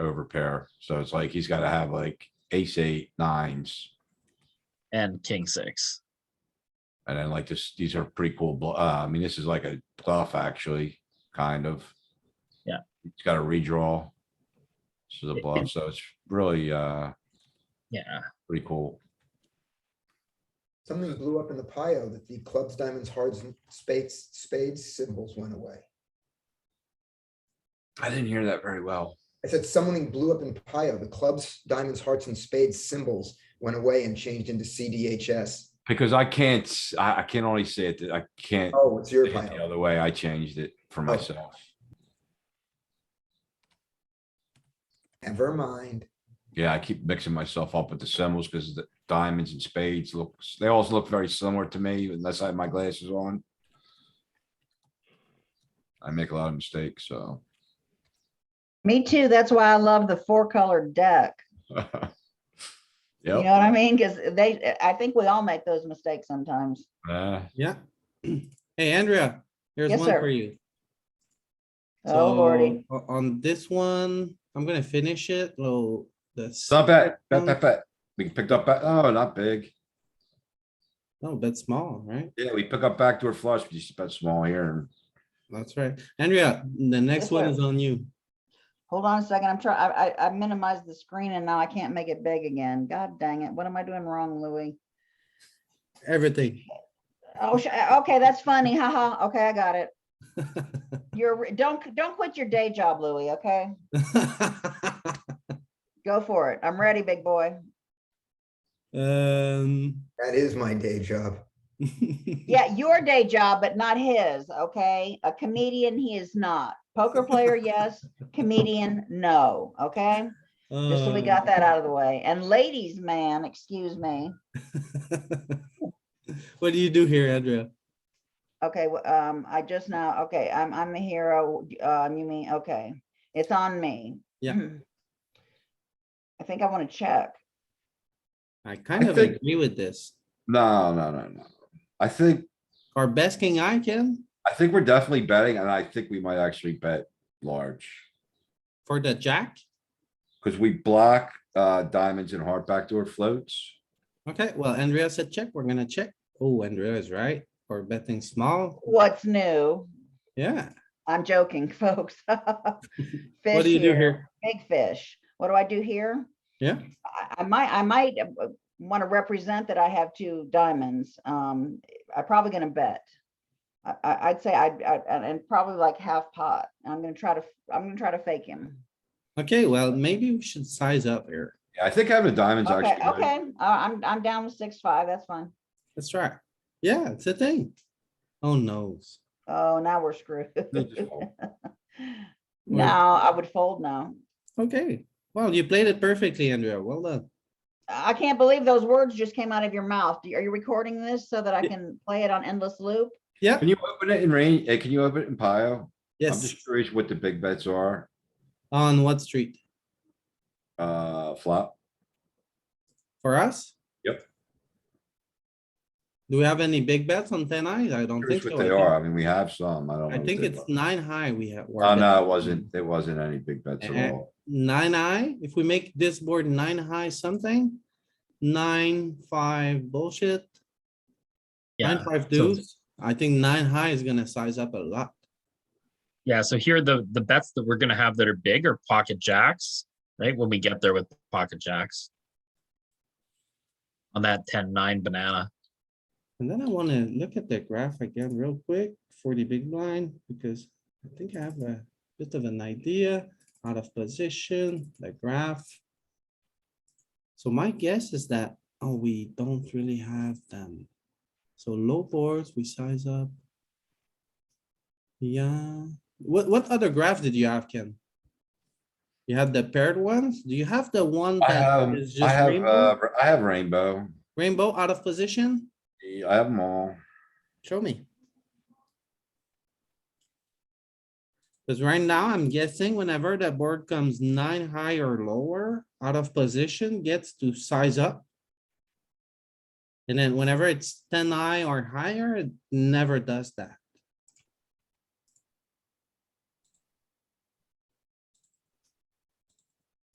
over pair. So it's like he's gotta have like ace eight, nines, and king six. and then like this, these are pretty cool. bl- Uh, I mean, this is like a bluff actually, kind of. Yeah. It's got a redraw. This is a It- bluff, so it's really, uh, Yeah, pretty cool. Something blew up in the pile that the clubs, diamonds, hearts, and spades, spades symbols went away. I didn't hear that very well. I said something blew up in Pio. The clubs, diamonds, hearts, and spades symbols went away and changed into CDHS. Because I can't, s- I, I can only say it, that I can't Oh, it's your say it the Pio. other way. I changed it for myself. Never mind. Yeah, I keep mixing myself up with the symbols because the diamonds and spades looks, they all look very similar to me unless I have my glasses on. I make a lot of mistakes, so. Me too. That's why I love the four colored deck. You know Yep, what I mean? Because they, I think we all make those mistakes sometimes. uh, Yeah. Hey, Andrea, here's Yes, one sir. for you. Oh, Lordy. So, o- On this one, I'm gonna finish it, well, the. stop bet, bet, second bet, one- bet. We picked up, ba- oh, not big. No, bet Oh, small, right? Yeah, we pick up backdoor flush, we just bet small here and That's right. Andrea, the next Yes, one sir. is on you. Hold on a second. I'm trying, I, I, I minimized the screen and now I can't make it big again. God dang it. What am I doing wrong, Louis? Everything. Oh, sh- okay, that's funny. Haha. Okay, I got it. You're, don't, don't quit your day job, Louis, okay? Go for it. I'm ready, big boy. Um. That is my day job. Yeah, your day job, but not his, okay? A comedian, he is not. Poker player, yes. Comedian, no, okay? Just Hmm. so we got that out of the way. And ladies, man, excuse me. um, What do you do here, Andrea? Okay, wh- um, I just now, okay, I'm, I'm the hero. Um, you mean, okay, it's on me. Yeah. Mhm. I think I want to check. I kind of think- agree with this. no, no, no, no. I think, Our best king I can I think we're definitely betting and I think we might actually bet large. for the jack. Cause we block, uh, diamonds and heart backdoor floats. Okay, well, Andrea said check, we're gonna check. Oh, Andrea is right, or betting small, What's new? yeah. I'm joking, folks. What Fish do you do here. here? big fish. What do I do here? Yeah. I, I might, I might want to represent that I have two diamonds. Um, I'm probably gonna bet. I, I, I'd say I'd, I, and and probably like half pot. I'm gonna try to, I'm gonna try to fake him. Okay, well, maybe we should size up here. Yeah, I think having a diamond's Okay, actually. good. okay, I- I'm, I'm down with six, five, that's fine. That's right. Yeah, it's a thing. Oh, noes. Oh, now we're screwed. They just fold. No, I would fold now. Okay, well, you played it perfectly, Andrea. Well done. I can't believe those words just came out of your mouth. Are you recording this so that I Ye- can play it on endless loop? Yeah, Can you open it in range? eh, Can you open it in Pio? I'm yes, just curious what the big bets are, on what street? uh, flop. For us? Yep. Do we have any big bets on ten eyes? I don't think Curious so. what I they think- are. I mean, we have some. I don't. know I what think they it's are. nine high we have. Oh, no, it wasn't. It wasn't any big bets at Uh-uh. all. nine high, if we make this board nine high something, nine, five bullshit, nine, yeah, five so- deuce, I think nine high is gonna size up a lot. yeah. So here the the bets that we're gonna have that are big are pocket jacks, right? When we get there with pocket jacks. On that 10-9 banana. And then I wanna look at the graph again real quick for the big blind, because I think I have a bit of an idea, out of position, the graph. So my guess is that, oh, we don't really have them. So low boards, we size up. Yeah, what, what other graph did you have, Ken? You had the paired ones? Do you have the one I that have, is I just have, rainbow? uh, I have rainbow. Rainbow out of position? Yeah, I have them all. Show me. Cause right now, I'm guessing whenever the board comes nine high or lower, out of position gets to size up. And then whenever it's ten high or higher, it never does that.